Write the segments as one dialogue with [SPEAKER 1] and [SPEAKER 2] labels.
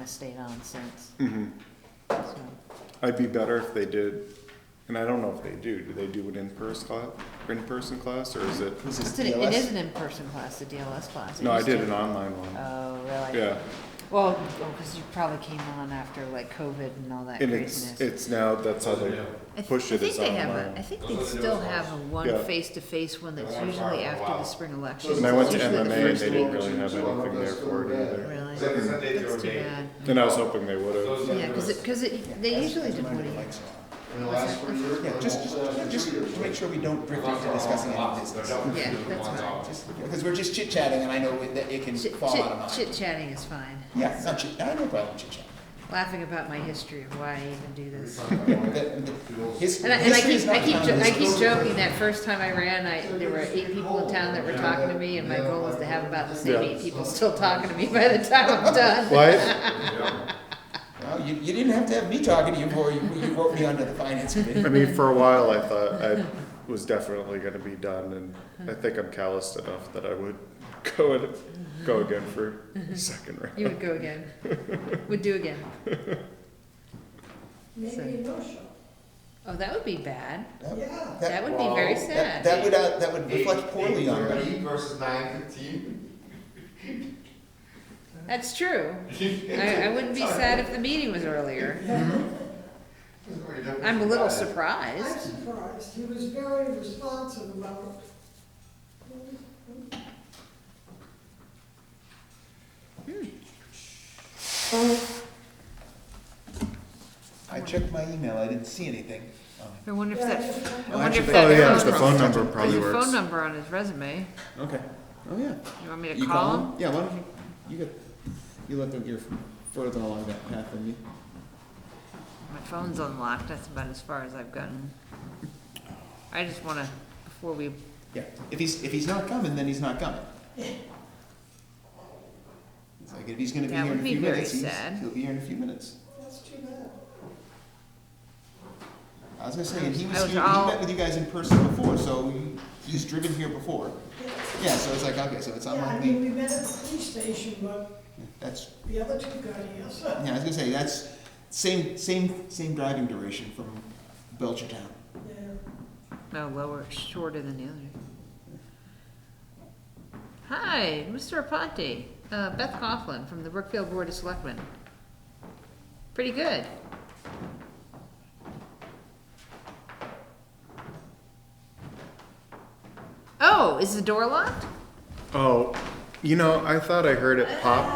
[SPEAKER 1] of stayed on since.
[SPEAKER 2] Mm-hmm.
[SPEAKER 1] So,
[SPEAKER 2] I'd be better if they did, and I don't know if they do, do they do an in-person class, in-person class, or is it?
[SPEAKER 3] This
[SPEAKER 1] It's
[SPEAKER 3] is
[SPEAKER 1] an- It is
[SPEAKER 3] DLS.
[SPEAKER 1] an in-person class, the DLS class. It
[SPEAKER 2] No, I
[SPEAKER 1] used
[SPEAKER 2] did
[SPEAKER 1] to-
[SPEAKER 2] an online one,
[SPEAKER 1] Oh, really?
[SPEAKER 2] yeah,
[SPEAKER 1] Well, because you probably came on after like COVID and all that
[SPEAKER 2] and it's,
[SPEAKER 1] craziness.
[SPEAKER 2] it's now, that's how they
[SPEAKER 1] I th-
[SPEAKER 2] push it
[SPEAKER 1] I think
[SPEAKER 2] is
[SPEAKER 1] they have a- I
[SPEAKER 2] online.
[SPEAKER 1] think
[SPEAKER 4] Those
[SPEAKER 1] they
[SPEAKER 4] are the
[SPEAKER 1] still
[SPEAKER 4] newest
[SPEAKER 1] have a
[SPEAKER 4] ones.
[SPEAKER 1] one
[SPEAKER 2] Yeah.
[SPEAKER 1] face-to-face one that's
[SPEAKER 4] That one's
[SPEAKER 1] usually
[SPEAKER 4] around for a
[SPEAKER 1] after the
[SPEAKER 4] while.
[SPEAKER 1] spring election.
[SPEAKER 2] And I went to
[SPEAKER 1] It's usually the
[SPEAKER 2] MMA and
[SPEAKER 1] first
[SPEAKER 2] they
[SPEAKER 1] week.
[SPEAKER 2] didn't really have anything there for it either,
[SPEAKER 1] Really?
[SPEAKER 4] Except for Sunday, they
[SPEAKER 1] That's
[SPEAKER 4] were
[SPEAKER 1] too
[SPEAKER 4] made.
[SPEAKER 1] bad.
[SPEAKER 2] and I was hoping they would've.
[SPEAKER 4] Those are
[SPEAKER 1] Yeah,
[SPEAKER 4] the
[SPEAKER 1] because it,
[SPEAKER 4] newest.
[SPEAKER 1] because it, they usually did
[SPEAKER 3] Turn my
[SPEAKER 1] Woody.
[SPEAKER 3] lights off.
[SPEAKER 4] In the last four years. uh,
[SPEAKER 3] Yeah, just, just, just to make sure we don't drift into discussing any business.
[SPEAKER 1] Yeah, that's fine.
[SPEAKER 3] Just- Because we're just chit chatting and I know it- that it can
[SPEAKER 1] Chit,
[SPEAKER 3] fall out of
[SPEAKER 1] chit,
[SPEAKER 3] mind.
[SPEAKER 1] chit chatting is fine.
[SPEAKER 3] Yeah, it's not chit, I have no problem chit chatting.
[SPEAKER 1] Laughing about my history of why I even do this.
[SPEAKER 3] The- the- his-
[SPEAKER 1] And I, and I
[SPEAKER 3] history is
[SPEAKER 1] keep, I
[SPEAKER 3] not
[SPEAKER 1] keep, jo-
[SPEAKER 3] common.
[SPEAKER 1] I keep joking that first time I ran, I, there were eight people in town that were talking to me, and my goal was to have about the same
[SPEAKER 2] Yeah.
[SPEAKER 1] eight people still talking to me by the time I'm done.
[SPEAKER 2] Well,
[SPEAKER 3] Well, you, you didn't have to have me talking to you before you, you wrote me onto the finance
[SPEAKER 2] I, I
[SPEAKER 3] committee.
[SPEAKER 2] mean, for a while, I thought I was definitely gonna be done, and I think I'm calloused enough that I would go and, go again for a second round.
[SPEAKER 1] You would go again, would do again.
[SPEAKER 5] Maybe a no-show.
[SPEAKER 1] Oh, that would be bad.
[SPEAKER 3] That would-
[SPEAKER 1] That
[SPEAKER 3] That,
[SPEAKER 1] would be very
[SPEAKER 4] Well,
[SPEAKER 1] sad.
[SPEAKER 3] that- that would, uh, that would reflect poorly on her.
[SPEAKER 4] Eight versus nine fifteen.
[SPEAKER 1] That's true. I, I wouldn't be sad if the meeting was earlier. I'm a
[SPEAKER 4] Uh,
[SPEAKER 1] little
[SPEAKER 5] I'm
[SPEAKER 1] surprised.
[SPEAKER 5] surprised, he was very responsive about
[SPEAKER 3] I checked my email, I didn't see anything. Um,
[SPEAKER 1] I wonder if that, I
[SPEAKER 3] Well,
[SPEAKER 1] wonder if
[SPEAKER 3] actually,
[SPEAKER 1] that.
[SPEAKER 2] Oh, yeah, it's the
[SPEAKER 3] phone
[SPEAKER 2] phone
[SPEAKER 3] number.
[SPEAKER 2] number probably
[SPEAKER 1] There's a phone
[SPEAKER 2] works.
[SPEAKER 1] number on his resume.
[SPEAKER 3] Okay, oh, yeah.
[SPEAKER 1] You want me to
[SPEAKER 3] You
[SPEAKER 1] call
[SPEAKER 3] call
[SPEAKER 1] him?
[SPEAKER 3] him? Yeah, why don't you, you get, you let them, you're further along that path than me.
[SPEAKER 1] My phone's unlocked, that's about as far as I've gotten. I just wanna, before we,
[SPEAKER 3] Yeah, if he's, if he's not coming, then he's not coming. It's like, if he's gonna be
[SPEAKER 1] That
[SPEAKER 3] here in
[SPEAKER 1] would
[SPEAKER 3] a
[SPEAKER 1] be
[SPEAKER 3] few
[SPEAKER 1] very
[SPEAKER 3] minutes,
[SPEAKER 1] sad.
[SPEAKER 3] he's, he'll be here in a few minutes.
[SPEAKER 5] that's too bad.
[SPEAKER 3] I was gonna say, and he
[SPEAKER 1] I
[SPEAKER 3] was
[SPEAKER 1] was
[SPEAKER 3] here, he
[SPEAKER 1] all-
[SPEAKER 3] met with you guys in person before, so he's driven here before. Yeah, so it's like, okay, so it's
[SPEAKER 5] Yeah, I mean,
[SPEAKER 3] unlikely,
[SPEAKER 5] we met at the police station, but
[SPEAKER 3] that's,
[SPEAKER 5] the other two got here, so.
[SPEAKER 3] yeah, I was gonna say, that's same, same, same driving duration from Belchertown.
[SPEAKER 5] yeah.
[SPEAKER 1] no, lower, shorter than the other. Hi, Mr. Aponte, uh, Beth Coughlin from the Brookfield Board of Selectmen. Pretty good. Oh, is the door locked?
[SPEAKER 2] Oh, you know, I thought I heard it pop.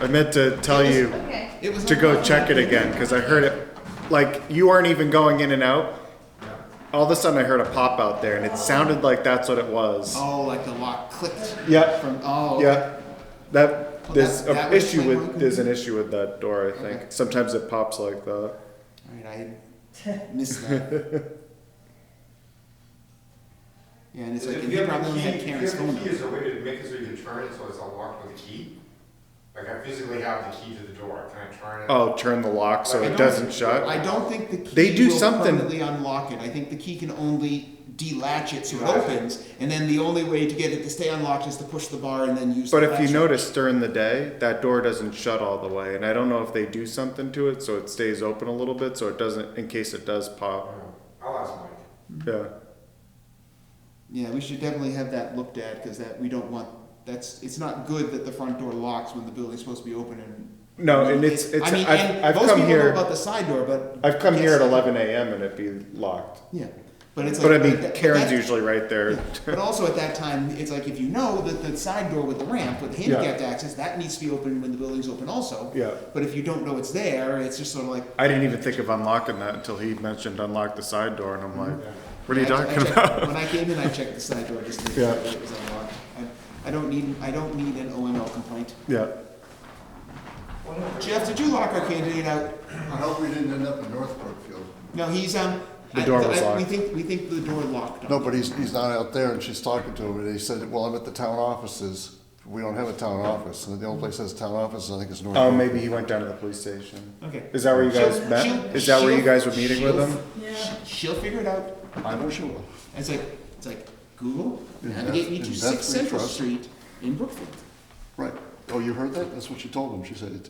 [SPEAKER 2] I meant to tell you
[SPEAKER 1] Okay.
[SPEAKER 3] It was
[SPEAKER 2] to go
[SPEAKER 3] unlikely.
[SPEAKER 2] check it again because I heard it. Like you aren't even going in and out. All of a sudden, I heard a pop out there, and it sounded like that's what it was.
[SPEAKER 3] Oh, like the lock clicked
[SPEAKER 2] Yep.
[SPEAKER 3] from, oh.
[SPEAKER 2] Yep. That
[SPEAKER 3] Well,
[SPEAKER 2] there's
[SPEAKER 3] that- that
[SPEAKER 2] an
[SPEAKER 3] would
[SPEAKER 2] issue
[SPEAKER 3] explain
[SPEAKER 2] with
[SPEAKER 3] why-
[SPEAKER 2] there's an issue with that door. I
[SPEAKER 3] Okay.
[SPEAKER 2] think sometimes it pops like that.
[SPEAKER 3] Alright, I missed that. Yeah, and it's like, and
[SPEAKER 4] If
[SPEAKER 3] he
[SPEAKER 4] you have
[SPEAKER 3] probably
[SPEAKER 4] a
[SPEAKER 3] only
[SPEAKER 4] key,
[SPEAKER 3] had
[SPEAKER 4] if you
[SPEAKER 3] Karen's
[SPEAKER 4] have
[SPEAKER 3] phone
[SPEAKER 4] a key,
[SPEAKER 3] number.
[SPEAKER 4] is there a way to make it so you can turn it so it's unlocked with a key? Like I physically have the key to the door, can I turn it?
[SPEAKER 2] Oh, turn the lock so
[SPEAKER 4] Like,
[SPEAKER 2] it
[SPEAKER 4] I don't-
[SPEAKER 2] doesn't shut.
[SPEAKER 3] I don't think the key
[SPEAKER 2] They do
[SPEAKER 3] will
[SPEAKER 2] something.
[SPEAKER 3] permanently unlock it. I think the key can only delatch it so it opens, and then the only way to get it to stay unlocked is to push the bar and then use.
[SPEAKER 2] But
[SPEAKER 3] the
[SPEAKER 2] if you
[SPEAKER 3] latch.
[SPEAKER 2] notice during the day, that door doesn't shut all the way, and I don't know if they do something to it so it stays open a little bit, so it doesn't in case it does pop.
[SPEAKER 3] Oh.
[SPEAKER 4] I'll ask Mike.
[SPEAKER 2] Yeah.
[SPEAKER 3] yeah, we should definitely have that looked at because that we don't want. That's it's not good that the front door locks when the building's supposed to be open and.
[SPEAKER 2] No, and it's it's.
[SPEAKER 3] I mean,
[SPEAKER 2] I've,
[SPEAKER 3] and
[SPEAKER 2] I've
[SPEAKER 3] most
[SPEAKER 2] come
[SPEAKER 3] people know
[SPEAKER 2] here.
[SPEAKER 3] about the side door, but
[SPEAKER 2] I've come here
[SPEAKER 3] Yes.
[SPEAKER 2] at 11 a.m. and it be locked.
[SPEAKER 3] yeah, but it's
[SPEAKER 2] But I
[SPEAKER 3] like.
[SPEAKER 2] mean,
[SPEAKER 3] that-
[SPEAKER 2] Karen's
[SPEAKER 3] that-
[SPEAKER 2] usually right there.
[SPEAKER 3] Yeah, But also at that time, it's like if you know that the side door with the ramp with handicapped access that needs to be open when the building's open also.
[SPEAKER 2] Yeah.
[SPEAKER 3] But if you don't know it's there, it's just sort of like.
[SPEAKER 2] I didn't even think of unlocking that until he mentioned unlock the side door, and I'm like, what are you
[SPEAKER 3] I- I
[SPEAKER 2] talking
[SPEAKER 3] checked-
[SPEAKER 2] about?
[SPEAKER 3] When I came in, I checked the side door just to make sure
[SPEAKER 2] Yeah.
[SPEAKER 3] that it was unlocked. I- I don't need, I don't need an OML complaint.
[SPEAKER 2] Yeah.
[SPEAKER 3] Jeff, did you lock our candidate out?
[SPEAKER 6] I hope we didn't end up in North Brookfield.
[SPEAKER 3] No, he's, um.
[SPEAKER 2] The
[SPEAKER 3] I-
[SPEAKER 2] door was
[SPEAKER 3] I- We
[SPEAKER 2] locked.
[SPEAKER 3] think, we think the door locked on.
[SPEAKER 6] No, but he's, he's not out there and she's talking to him and he said, well, I'm at the town offices. We don't have a town office. And the only place that's town offices, I think, is North.
[SPEAKER 3] Mm-hmm.
[SPEAKER 2] Oh,
[SPEAKER 6] Brookfield.
[SPEAKER 2] maybe he went down to the police station.
[SPEAKER 3] Okay.
[SPEAKER 2] Is that where you guys
[SPEAKER 3] She'll-
[SPEAKER 2] met?
[SPEAKER 3] she'll-
[SPEAKER 2] Is that where you
[SPEAKER 3] she'll-
[SPEAKER 2] guys were meeting with
[SPEAKER 3] she'll-
[SPEAKER 2] him?
[SPEAKER 5] Yeah.
[SPEAKER 3] She'll figure it out.
[SPEAKER 6] I know she will.
[SPEAKER 3] And It's like, it's like, Google,
[SPEAKER 6] Is that-
[SPEAKER 3] navigate me to
[SPEAKER 6] is that
[SPEAKER 3] Sixth
[SPEAKER 6] free
[SPEAKER 3] Central
[SPEAKER 6] trust?
[SPEAKER 3] Street in Brookfield.
[SPEAKER 6] Right. Oh, you heard that? That's what she told him. She said, it,